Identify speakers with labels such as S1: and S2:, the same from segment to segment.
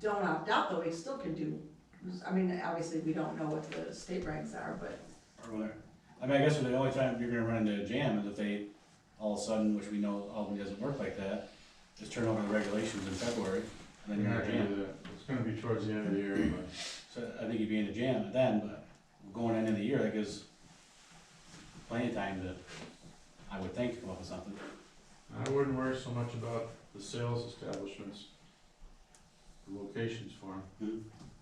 S1: don't opt out, though, we still can do, I mean, obviously, we don't know what the state ranks are, but
S2: or whatever. I mean, I guess the only time you're gonna run into a jam is if they, all of a sudden, which we know Albany doesn't work like that, just turn over the regulations in February, and then
S3: You're
S2: you're in
S3: not
S2: a
S3: gonna
S2: jam.
S3: do that. It's gonna be towards the end of the year anyway.
S2: So I think you'd be in a jam then, but going into the year, that gives plenty of time to, I would think, to come up with something.
S3: I wouldn't worry so much about the sales establishments, the locations for them.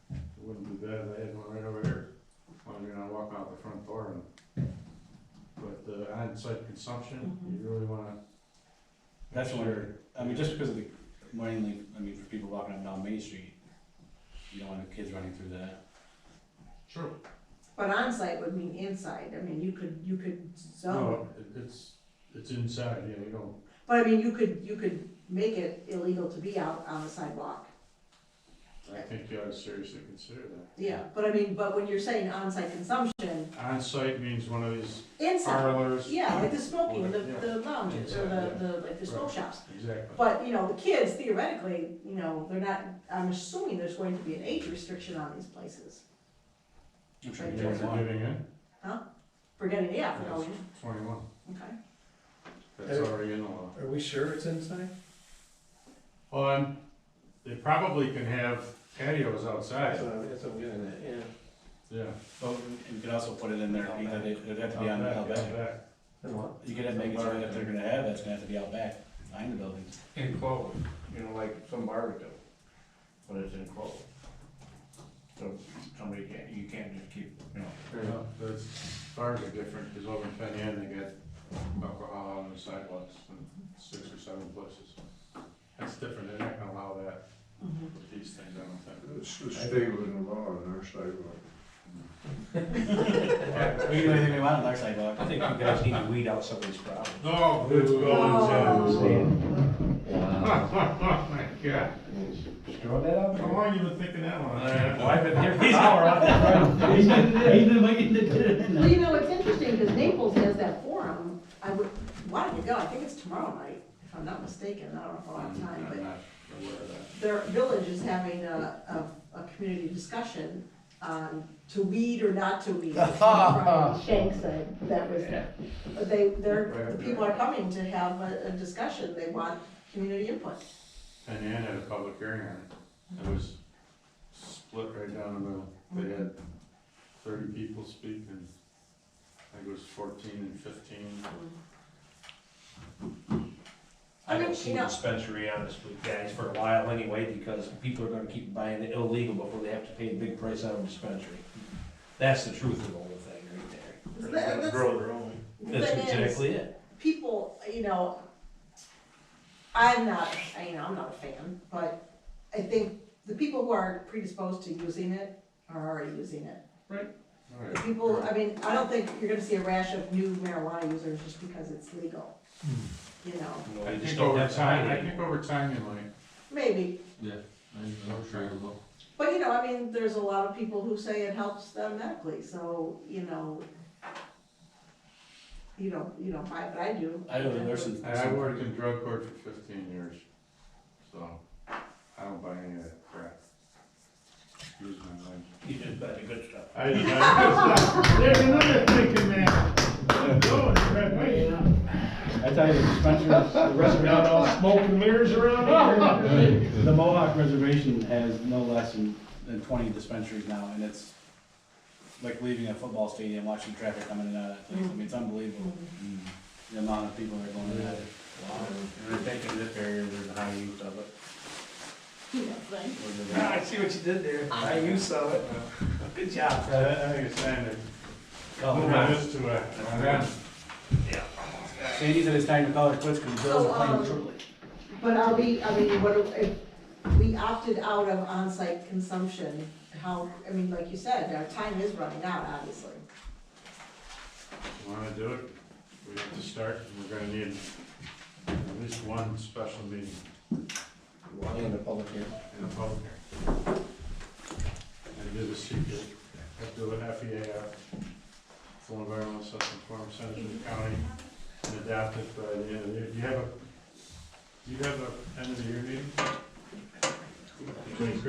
S2: Hmm.
S3: It wouldn't be bad if I had one right over here, when you're gonna walk out the front door and. But the on-site consumption, you really wanna.
S2: That's where, I mean, just because of the, mainly, I mean, for people walking up and down Main Street, you don't want the kids running through that.
S3: True.
S1: but onsite would mean inside, I mean, you could, you could zone.
S3: No, it- it's, it's inside, yeah, you don't,
S1: But I mean, you could, you could make it illegal to be out on the sidewalk.
S3: I think you ought to seriously consider
S1: Yeah, but I mean, but when you're saying onsite consumption,
S3: that. On-site means one of these
S1: inside,
S3: parlors.
S1: yeah, like the smoking, the,
S3: Yeah.
S1: the lounges, or the, the, like the smoke
S3: Right.
S1: shops.
S3: Exactly.
S1: But, you know, the kids theoretically, you know, they're not, I'm assuming there's going to be an age restriction on these places.
S2: I'm sure
S3: You
S2: you
S1: Right.
S3: guys
S2: don't
S3: are
S2: want.
S3: giving in,
S1: For getting, yeah, for
S3: Yeah.
S1: going,
S3: twenty-one,
S1: okay.
S3: that's already in the law.
S4: Are we sure it's inside?
S3: On, they probably can have patios outside,
S4: That's what I'm getting at, yeah.
S3: yeah.
S2: But you could also put it in there, either they, it'd have to be on the
S3: Out
S2: out
S3: back,
S2: back.
S3: out back.
S4: And what?
S2: You could have, make it so that if they're gonna have it, it's gonna have to be out back, behind the building.
S5: enclosed, you know, like some bars do, but it's enclosed. So somebody can't, you can't just keep, you know,
S3: Well, Those bars are different, because over in Penn, they got alcohol on the sidewalks in six or seven places. That's different, they're not gonna allow that
S1: Mhm.
S3: with these things, I don't think.
S6: It's the state of the law on our sidewalk.
S2: We can do anything we want on our sidewalk.
S5: I think you guys need to weed out some of these problems.
S3: No, it's
S1: Oh.
S3: going
S6: Wow.
S3: Oh, my God.
S6: Throw that out
S3: How
S6: there.
S3: long you been thinking that one?
S5: Well, I've been here for an hour, I've been.
S2: He's been waiting to get it in
S1: Well, you know, it's interesting, because Naples has that forum, I would, why don't we go, I think it's tomorrow night, if I'm not mistaken, I don't know if I'll have time,
S3: I'm
S1: but
S3: not aware of that.
S1: their village is having a, a, a community discussion on to weed or not to weed. Right, Shank said, that was, but they, they're, the people are coming to have a, a discussion, they want community input.
S3: And Ann had a public hearing on it. It was split right down the middle. They had thirty people speak and I think it was fourteen and fifteen.
S1: I
S5: I
S1: mean,
S5: don't see
S1: you know-
S5: dispensary on this with guys for a while anyway, because people are gonna keep buying the illegal before they have to pay a big price on a dispensary. That's the truth of the whole thing right there.
S1: Is that- that's-
S3: their own.
S5: That's
S1: thing is,
S5: exactly it.
S1: people, you know, I'm not, I- you know, I'm not a fan, but I think the people who are predisposed to using it are already using it. The people, I mean, I don't think you're gonna see a rash of new marijuana users just because it's legal, you know,
S5: You know,
S3: I
S5: we just
S3: think
S5: don't
S3: over
S5: have
S3: time, I
S5: time.
S3: think over time you might.
S1: maybe.
S3: I'm sure you will.
S1: But, you know, I mean, there's a lot of people who say it helps them medically, so, you know, you don't, you don't buy, it, but I do.
S2: I know that there's some.
S3: I I worked in drug court for fifteen years, so I don't buy any of that crap. Excuse my language.
S5: You just buy the good stuff.
S3: I, I, there's another thinking man. Go, right way.
S2: I tell you, the dispensers, the
S5: Got all
S2: reservation,
S5: smoke and mirrors around here.
S2: the Mohawk Reservation has no less than, than twenty dispensaries now, and it's like leaving a football stadium, watching traffic coming in and out of that place. I mean, it's unbelievable. The amount of people that are going in and out of it.
S5: And I think in this area, there's a high use of it.
S7: I see what you did there. I you saw it. Good job.
S3: I, I think it's time to move this to uh, a, a run.
S2: Sandy said it's time to call it quits because the Bills
S1: So,
S2: are
S1: um,
S2: playing truly.
S1: But are we, I mean, what, do- if we opted out of on-site consumption, how, I mean, like you said, our time is running out, obviously.
S3: Wanna do it, we have to start, and we're gonna need at least one special meeting
S4: Walking the public here.
S3: in a public hearing. And do the secret, have to do an FEAF, uh, full environmental assessment form, send it to the county, and adapt it by the end of the year. Do you have a, do you have a end of the year meeting?